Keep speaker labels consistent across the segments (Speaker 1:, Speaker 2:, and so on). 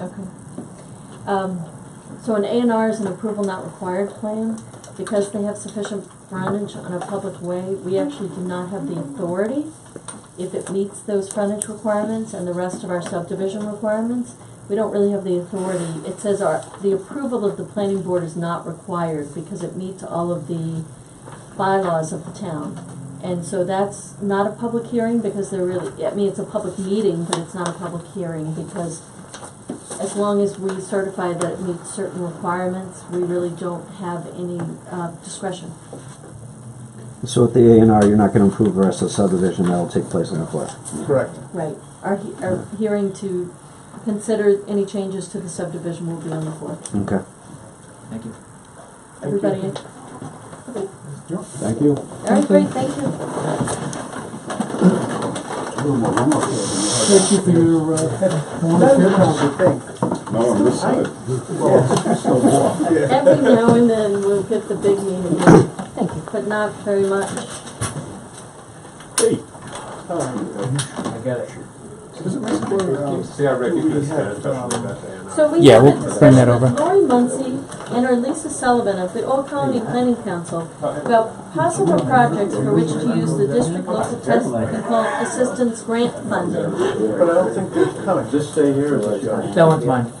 Speaker 1: Okay. Um, so an A and R is an approval not required plan, because they have sufficient frontage on a public way, we actually do not have the authority. If it meets those frontage requirements and the rest of our subdivision requirements, we don't really have the authority, it says our, the approval of the planning board is not required, because it meets all of the bylaws of the town. And so that's not a public hearing, because they're really, I mean, it's a public meeting, but it's not a public hearing, because as long as we certify that it meets certain requirements, we really don't have any uh, discretion.
Speaker 2: So at the A and R, you're not gonna approve the rest of the subdivision, that'll take place on the floor.
Speaker 3: Correct.
Speaker 1: Right. Our, he- our hearing to consider any changes to the subdivision will be on the floor.
Speaker 2: Okay.
Speaker 4: Thank you.
Speaker 1: Everybody, in?
Speaker 2: Thank you.
Speaker 1: all right, great, thank you.
Speaker 3: Thank you for your, uh,
Speaker 5: No, on this side.
Speaker 1: Every now and then we'll get the big meeting, thank you, but not very much.
Speaker 4: I get it.
Speaker 3: uh,
Speaker 5: See, I recognize that, especially about that.
Speaker 1: So we
Speaker 6: Yeah,
Speaker 1: had a
Speaker 6: we'll bring that
Speaker 1: discussion
Speaker 6: over.
Speaker 1: with Lori Muncy and our Lisa Sullivan of the Old Colony Planning Council about possible projects for which to use the district local test control assistance grant funding.
Speaker 3: but I don't think they're coming.
Speaker 5: Just stay here or is that?
Speaker 6: That one's mine.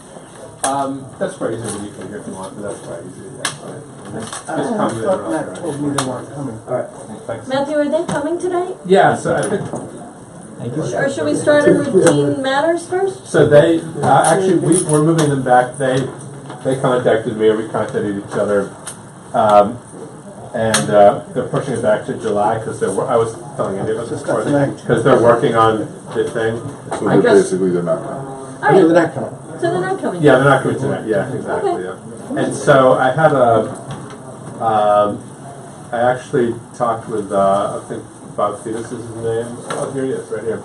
Speaker 5: Um, that's quite easy, you can hear if you want, but that's quite easy, that's fine. Just
Speaker 3: I
Speaker 5: just come in
Speaker 3: thought Matt
Speaker 5: and
Speaker 3: told
Speaker 5: out,
Speaker 3: me they weren't coming.
Speaker 5: right? Thanks.
Speaker 1: Matthew, are they coming today?
Speaker 5: Yeah, so I think,
Speaker 6: Thank you.
Speaker 1: Or should we start on routine matters first?
Speaker 5: so they, uh, actually, we, we're moving them back, they, they contacted me, or we contacted each other. Um, and, uh, they're pushing it back to July, because they're, wor- I was telling Andy about this
Speaker 3: Just got
Speaker 5: before,
Speaker 3: tonight.
Speaker 5: because they're working on the thing.
Speaker 7: So
Speaker 1: I
Speaker 7: they're
Speaker 1: guess-
Speaker 7: basically, they're not coming.
Speaker 1: All
Speaker 3: I mean,
Speaker 1: right,
Speaker 3: they're not coming.
Speaker 1: so they're not coming.
Speaker 5: Yeah, they're not coming tonight. Yeah, exactly. Yeah. And so I had a, um, I actually talked with uh, I think Bob Fetus is his name. Oh, here he is, right here.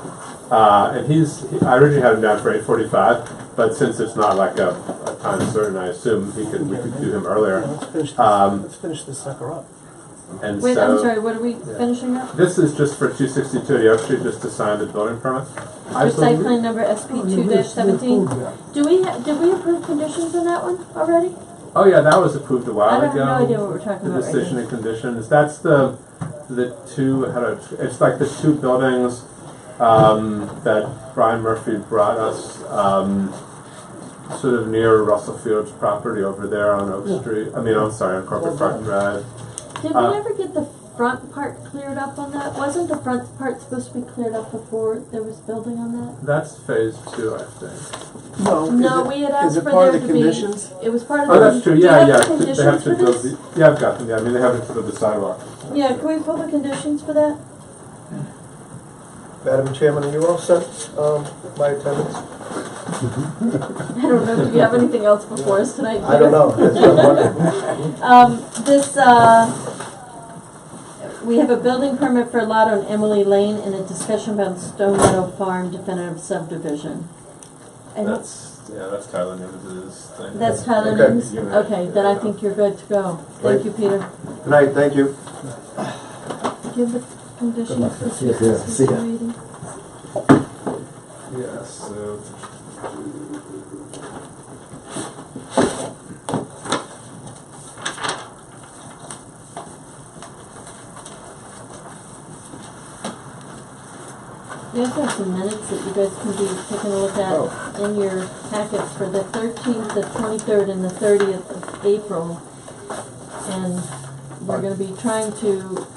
Speaker 5: Uh, and he's he, I originally had him down for eight forty-five, but since it's not like a, a time certain, I assume he could we could do him
Speaker 3: Yeah,
Speaker 5: earlier.
Speaker 3: Let's finish this,
Speaker 5: Um,
Speaker 3: let's finish this sucker up.
Speaker 5: And
Speaker 1: Wait,
Speaker 5: so
Speaker 1: I'm sorry, what are we finishing up?
Speaker 5: this is just for two sixty-two Oak Street, just to sign the building permit. I
Speaker 1: For site
Speaker 5: believe- Oh,
Speaker 1: plan number SP two seventeen? Do we, ha- did we approve conditions on that one already?
Speaker 5: Oh yeah, that was approved a
Speaker 1: I
Speaker 5: while
Speaker 1: don't have
Speaker 5: ago.
Speaker 1: no idea what we're talking
Speaker 5: The
Speaker 1: about right
Speaker 5: decision
Speaker 1: now.
Speaker 5: and conditions, that's the, the two, how do, I- it's like the two buildings, um, that Brian Murphy brought us, um, sort of near Russell Fields property over there on Oak Street, I mean, I'm sorry, on Corporate Park Drive.
Speaker 1: Did
Speaker 5: Uh,
Speaker 1: we ever get the front part cleared up on that? Wasn't the front part supposed to be cleared up before there was building on that?
Speaker 5: That's phase two, I think.
Speaker 3: No,
Speaker 1: No,
Speaker 3: is
Speaker 1: we had
Speaker 3: it, is
Speaker 1: asked
Speaker 3: it
Speaker 1: for
Speaker 3: part of
Speaker 1: there
Speaker 3: the
Speaker 1: to be.
Speaker 3: conditions?
Speaker 1: It was part of the.
Speaker 5: Oh, that's true,
Speaker 1: do you
Speaker 5: yeah,
Speaker 1: have
Speaker 5: yeah,
Speaker 1: the
Speaker 5: they have
Speaker 1: conditions
Speaker 5: to
Speaker 1: for
Speaker 5: build
Speaker 1: this?
Speaker 5: the, yeah, I've got them, yeah, I mean, they have to build the sidewalk.
Speaker 1: Yeah, can we pull the conditions for that?
Speaker 8: Madam Chairman, are you all set, um, my attendance?
Speaker 1: I don't know, do we have anything else before us tonight?
Speaker 8: I don't know, that's what I'm wondering.
Speaker 1: Um, this, uh, we have a building permit for a lot on Emily Lane and a discussion about Stone Meadow Farm definitive subdivision. I don't-
Speaker 5: That's, yeah, that's Tyler Nimz's thing.
Speaker 1: That's Tyler
Speaker 8: Okay.
Speaker 1: Nims? Okay, then I think you're good to go. Thank you, Peter.
Speaker 8: Good night, thank you.
Speaker 1: Do you have the conditions for
Speaker 2: Yeah, yeah, see ya.
Speaker 1: 26280?
Speaker 5: Yeah, so.
Speaker 1: We also have some minutes that you guys can be taking a look at in your packets for the thirteenth, the twenty-third, and the thirtieth of April. And we're gonna be trying to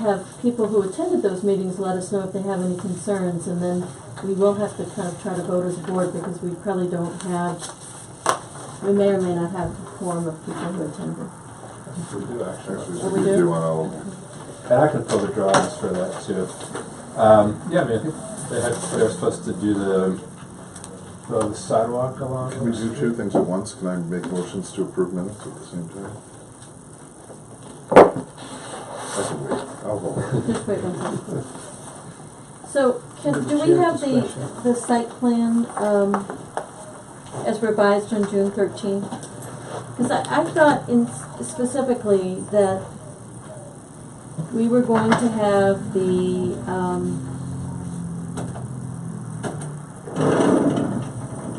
Speaker 1: have people who attended those meetings let us know if they have any concerns, and then we will have to kind of try to vote as a board, because we probably don't have, we may or may not have a quorum of people who attended.
Speaker 5: We do actually.
Speaker 1: What
Speaker 7: Actually,
Speaker 1: we
Speaker 7: we
Speaker 1: do?
Speaker 7: do on all of them.
Speaker 5: And I can pull the drawings for that too. Um, yeah, I mean, I think they had, they were supposed to do the, the sidewalk along.
Speaker 7: Can we do two things at once? Can I make motions to approve minutes at the same time? I can wait, I'll hold.
Speaker 1: Just wait one second. please. So, can, do we have the, the site plan, um, as revised on June thirteenth? Cause I, I thought in specifically that we were going to have the, um,